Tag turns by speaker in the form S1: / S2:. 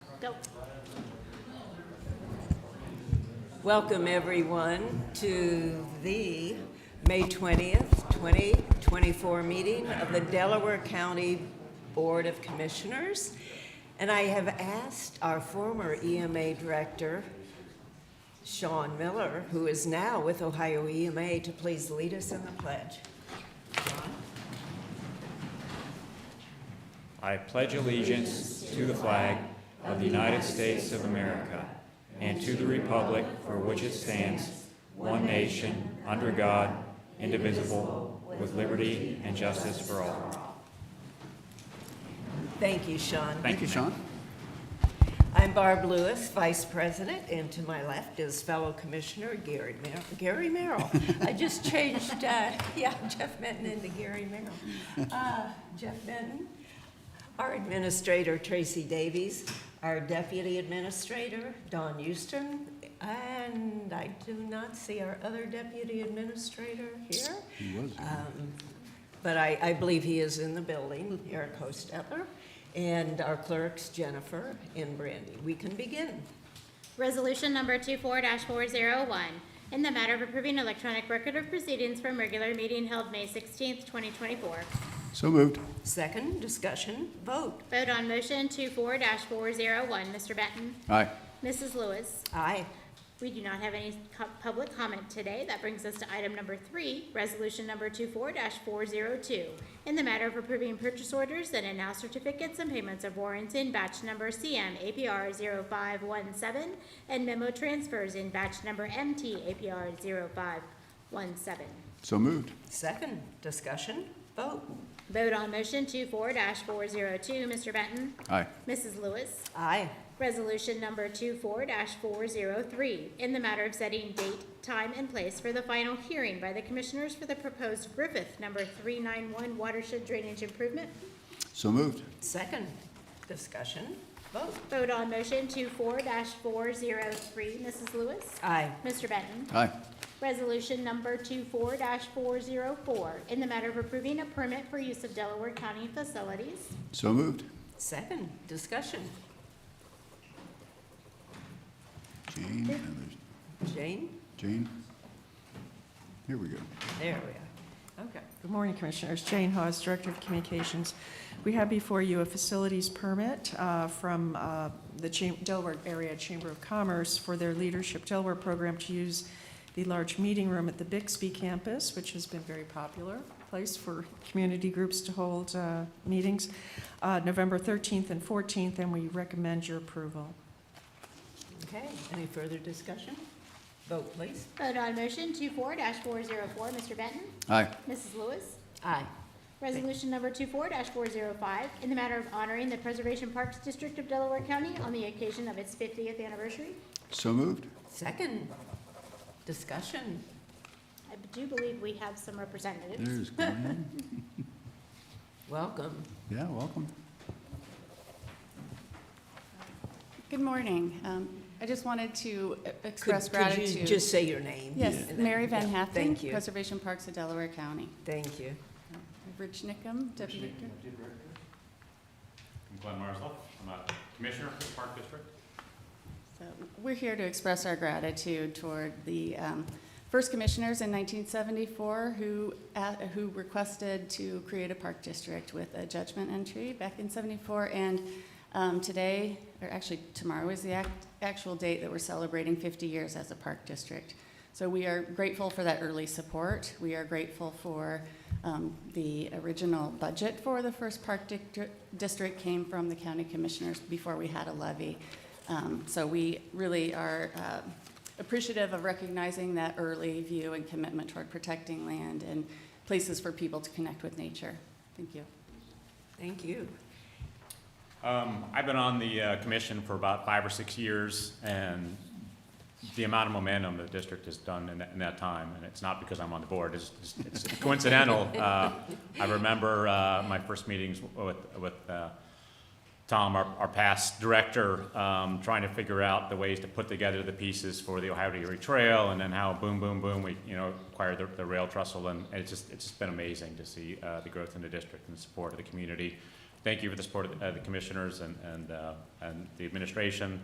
S1: Go.
S2: Welcome, everyone, to the May 20th, 2024 meeting of the Delaware County Board of Commissioners. And I have asked our former EMA Director, Sean Miller, who is now with Ohio EMA, to please lead us in the pledge.
S3: I pledge allegiance to the flag of the United States of America and to the republic for which it stands, one nation, under God, indivisible, with liberty and justice for all.
S2: Thank you, Sean.
S3: Thank you, Sean.
S2: I'm Barb Lewis, Vice President, and to my left is fellow Commissioner Gary Mer- Gary Merrill. I just changed, uh, yeah, Jeff Minton into Gary Merrill. Uh, Jeff Minton, our Administrator Tracy Davies, our Deputy Administrator Don Houston, and I do not see our other Deputy Administrator here. He was but I, I believe he is in the building, Eric Hostetler, and our clerks, Jennifer and Brandy. We can begin.
S1: Resolution number 24-401, in the matter of approving electronic record of proceedings from regular meeting held May 16th, 2024.
S4: So moved.
S2: Second, discussion, vote.
S1: Vote on motion 24-401, Mr. oh Benton.
S4: Aye.
S1: Mrs. Lewis.
S2: Aye.
S1: We do not have any co- public comment today. That brings us to item number three, resolution number 24-402, in the matter of approving purchase orders and announce certificates and payments of warrants in batch number CM APR 0517 and memo transfers in batch number MT APR 0517.
S4: So moved.
S2: Second, discussion, vote.
S1: Vote on motion 24-402, Mr. oh Benton.
S4: Aye.
S1: Mrs. Lewis.
S2: Aye.
S1: Resolution number 24-403, in the matter of setting date, time, and place for the final hearing by the Commissioners for the proposed Griffith Number 391 watershed drainage improvement.
S4: So moved.
S2: Second, discussion, vote.
S1: Vote on motion 24-403, Mrs. Lewis.
S2: Aye.
S1: Mr. Benton.
S4: Aye.
S1: Resolution number 24-404, in the matter of approving a permit for use of Delaware County facilities.
S4: So moved.
S2: Second, discussion,
S4: Jane, and there's
S2: Jane,
S4: Jane. Here we go.
S2: there we are. Okay.
S5: Good morning, Commissioners. Jane Hawes, Director of Communications. We have before you a facilities permit uh, from uh, the Cham- Delaware Area Chamber of Commerce for their Leadership Delaware program to use the large meeting room at the Bixby campus, which has been very popular place for community groups to hold uh, meetings, uh, November 13th and 14th, and we recommend your approval.
S2: Okay, any further discussion? Vote, please.
S1: Vote on motion 24-404, Mr. Benton.
S4: Aye.
S1: Mrs. Lewis.
S2: Aye.
S1: Resolution number 24-405, in the matter of honoring the Preservation Parks District of Delaware County on the occasion of its 50th anniversary.
S4: So moved.
S2: Second, discussion,
S1: I do believe we have some representatives.
S4: There's Glenn.
S2: welcome.
S4: Yeah, welcome.
S6: Good morning. Um, I just wanted to
S2: Could-
S6: express
S2: Could you
S6: gratitude.
S2: just say your name?
S6: Yes,
S2: And then-
S6: Mary Van
S2: yeah, Thank
S6: Heflin,
S2: you,
S6: Preservation Parks of Delaware County.
S2: thank you.
S6: Rich Nickum, Deputy Director.
S7: I'm Glenn Marslow. I'm a commissioner for the Park District.
S6: So We're here to express our gratitude toward the um, first commissioners in 1974 who, uh, who requested to create a park district with a judgment entry back in 74. And um, today, or actually tomorrow is the act- actual date that we're celebrating 50 years as a park district. So we are grateful for that early support. We are grateful for um, the original budget for the first park dic- district came from the county commissioners before we had a levy. Um, So we really are uh, appreciative of recognizing that early view and commitment toward protecting land and places for people to connect with nature. Thank you.
S2: Thank you.
S7: Um, I've been on the uh, commission for about five or six years, and the amount of momentum the district has done in that, in that time, and it's not because I'm on the board, it's, it's it's coincidental. Uh, I remember uh, my first meetings with, with uh, Tom, our, our past director, um, trying to figure out the ways to put together the pieces for the Ohio Dairy Trail, and then how boom, boom, boom, we, you know, acquired the, the rail trestle, and it's just, it's just been amazing to see, uh, the growth in the district and the support of the community. thank you for the support of the- uh, the commissioners and, and, uh, and the administration.